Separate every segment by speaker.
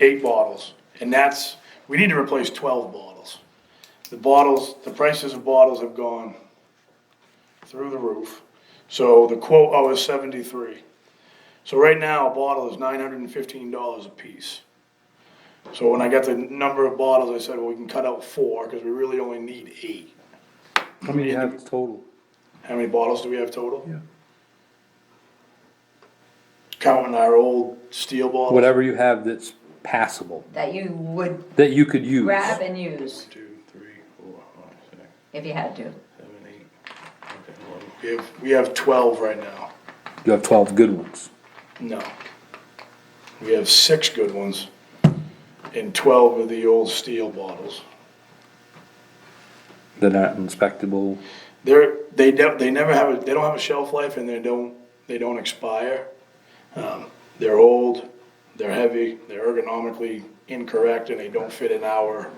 Speaker 1: eight bottles, and that's, we need to replace twelve bottles. The bottles, the prices of bottles have gone through the roof, so the quote oh is seventy-three. So right now, a bottle is nine hundred and fifteen dollars a piece. So when I got the number of bottles, I said, well, we can cut out four, cause we really only need eight.
Speaker 2: How many you have total?
Speaker 1: How many bottles do we have total?
Speaker 2: Yeah.
Speaker 1: Counting our old steel bottles?
Speaker 2: Whatever you have that's passable,
Speaker 3: that you would
Speaker 2: that you could use.
Speaker 3: grab and use
Speaker 1: Two, three, four, five, six,
Speaker 3: if you had to.
Speaker 1: seven, eight. Okay, well, We have, we have twelve right now.
Speaker 2: You have twelve good ones.
Speaker 1: No. We have six good ones and twelve of the old steel bottles.
Speaker 2: They're not inspectable.
Speaker 1: They're, they don't, they never have, a they don't have a shelf life and they don't, they don't expire. Um, They're old, they're heavy, they're ergonomically incorrect and they don't fit in our,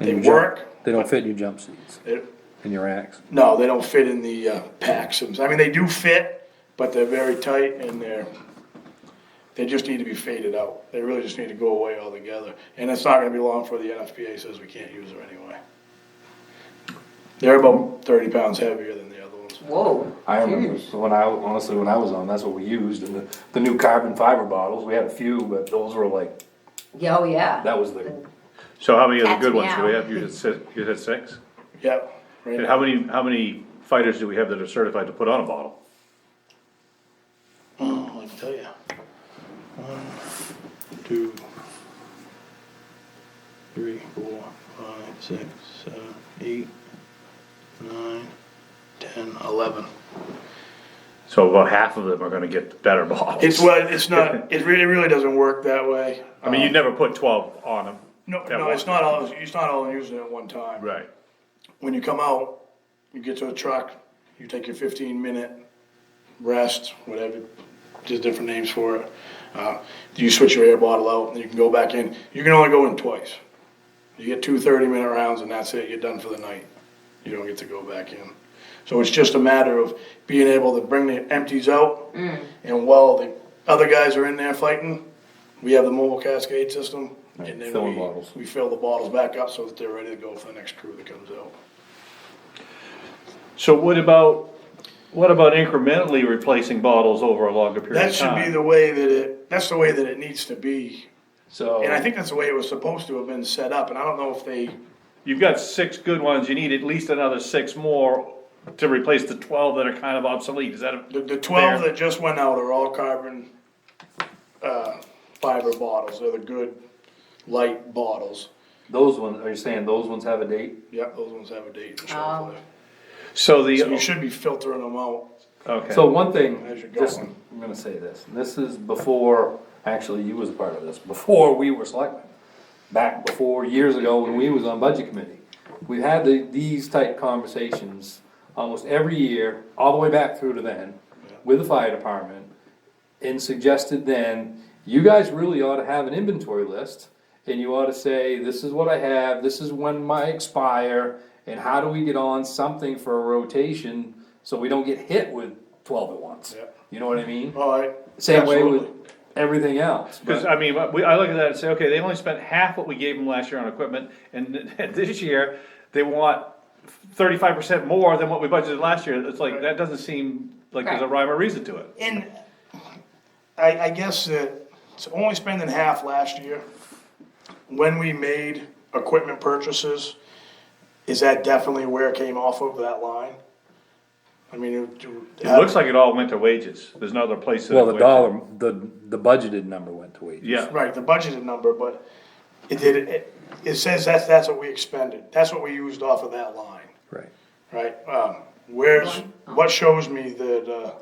Speaker 2: in
Speaker 1: they
Speaker 2: your jump-
Speaker 1: work.
Speaker 2: They don't fit in your jump seats,
Speaker 1: They-
Speaker 2: in your racks.
Speaker 1: No, they don't fit in the uh, packs. I mean, they do fit, but they're very tight and they're, they just need to be faded out. They really just need to go away altogether. And it's not gonna be long before the NFPA says we can't use them anyway. They're about thirty pounds heavier than the other ones.
Speaker 3: Whoa.
Speaker 4: I remember,
Speaker 3: huge.
Speaker 4: when I, honestly, when I was on, that's what we used, and the, the new carbon fiber bottles, we had a few, but those were like,
Speaker 3: Yeah, oh yeah.
Speaker 4: that was the,
Speaker 5: So how many of the
Speaker 3: Cats
Speaker 5: good ones do we
Speaker 3: meow.
Speaker 5: have? You had six, you had six?
Speaker 1: Yep. right
Speaker 5: And
Speaker 1: now.
Speaker 5: how many, how many fighters do we have that are certified to put on a bottle?
Speaker 1: Oh, I can tell you. One, two, three, four, five, six, seven, eight, nine, ten, eleven.
Speaker 5: So about half of them are gonna get better bottles.
Speaker 1: It's well, it's not, it really, really doesn't work that way. Um,
Speaker 5: I mean, you'd never put twelve on them.
Speaker 1: No,
Speaker 5: that
Speaker 1: no,
Speaker 5: way.
Speaker 1: it's not all, it's not all using it at one time.
Speaker 5: Right.
Speaker 1: When you come out, you get to a truck, you take your fifteen minute rest, whatever, there's different names for it. Uh, you switch your air bottle out, and you can go back in, you can only go in twice. You get two 30 minute rounds and that's it, you're done for the night. You don't get to go back in. So it's just a matter of being able to bring the empties out and while the other guys are in there fighting, we have the mobile cascade system and then
Speaker 4: filling
Speaker 1: we,
Speaker 4: bottles.
Speaker 1: we fill the bottles back up so that they're ready to go for the next crew that comes out.
Speaker 5: So what about, what about incrementally replacing bottles over a longer period
Speaker 1: That
Speaker 5: of
Speaker 1: should be
Speaker 5: time?
Speaker 1: the way that it, that's the way that it needs to be.
Speaker 4: so.
Speaker 1: And I think that's the way it was supposed to have been set up and I don't know if they
Speaker 5: You've got six good ones, you need at least another six more to replace the twelve that are kind of obsolete, is that a?
Speaker 1: The, the twelve
Speaker 5: fair?
Speaker 1: that just went out are all carbon, uh, fiber bottles, they're the good light bottles.
Speaker 4: Those ones, are you saying those ones have a date?
Speaker 1: Yep, those ones have a date and shelf
Speaker 3: Oh.
Speaker 1: life.
Speaker 5: So
Speaker 1: So you
Speaker 5: the,
Speaker 1: should be filtering them out.
Speaker 5: okay.
Speaker 4: So one thing,
Speaker 1: As you're
Speaker 4: just,
Speaker 1: going.
Speaker 4: I'm gonna say this, and this is before, actually, you was a part of this, before we were selectmen. Back before, years ago, when we was on budget committee, we had the, these type conversations almost every year, all the way back through to then, with the fire department. And suggested then, you guys really ought to have an inventory list, and you ought to say, this is what I have, this is when my expire. And how do we get on something for a rotation, so we don't get hit with twelve at once?
Speaker 1: Yep.
Speaker 4: You know what I mean?
Speaker 1: Alright.
Speaker 4: Same way with everything else. but-
Speaker 5: Cause I mean, we, I look at that and say, okay, they only spent half what we gave them last year on equipment, and this year, they want thirty-five percent more than what we budgeted last year, it's like, that doesn't seem like there's a rhyme or reason to it.
Speaker 1: And I, I guess that it's only spending half last year. When we made equipment purchases, is that definitely where it came off of that line? I mean, it.
Speaker 5: It looks like it all went to wages, there's no other place. that it
Speaker 2: Well, the
Speaker 5: went.
Speaker 2: dollar, the, the budgeted number went to wages.
Speaker 5: Yeah,
Speaker 1: Right, the budgeted number, but it did, it, it says that's, that's what we expended, that's what we used off of that line,
Speaker 2: Right.
Speaker 1: right? Um, where's,
Speaker 6: Oh.
Speaker 1: what shows me that, uh,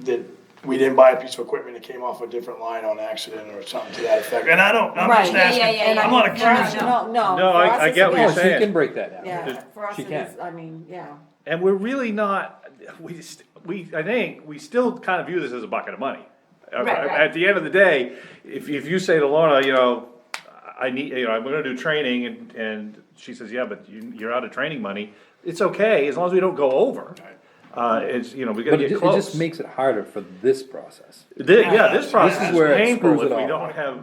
Speaker 1: that we didn't buy a piece of equipment that came off a different line on accident or something to that effect, and I don't, I'm
Speaker 6: Right.
Speaker 1: just
Speaker 6: Yeah,
Speaker 3: yeah, yeah,
Speaker 1: asking,
Speaker 3: yeah.
Speaker 1: I'm not
Speaker 3: No, no,
Speaker 1: accusing.
Speaker 6: No, no.
Speaker 5: No,
Speaker 6: for
Speaker 5: I-
Speaker 6: us
Speaker 5: I
Speaker 6: it's
Speaker 5: get what
Speaker 6: a
Speaker 5: you're
Speaker 2: Oh,
Speaker 6: no.
Speaker 2: she
Speaker 5: saying.
Speaker 2: can break that down.
Speaker 6: Yeah, for us
Speaker 2: She
Speaker 6: it
Speaker 2: can.
Speaker 6: is, I mean, yeah.
Speaker 5: and we're really not, we just, we, I think, we still kind of view this as a bucket of money. At
Speaker 3: right.
Speaker 5: at the end of the day, if, if you say to Lorna, you know, I need, you know, I'm gonna do training, and, and she says, yeah, but you, you're out of training money, it's okay, as long as we don't go over. Uh, it's, you know, we gotta
Speaker 2: But it
Speaker 5: get
Speaker 2: ju- it
Speaker 5: close.
Speaker 2: just makes it harder for this process.
Speaker 5: Thi- Yeah, this process is
Speaker 2: where it
Speaker 5: painful
Speaker 2: screws
Speaker 5: if
Speaker 2: it
Speaker 5: we
Speaker 2: all.
Speaker 5: don't have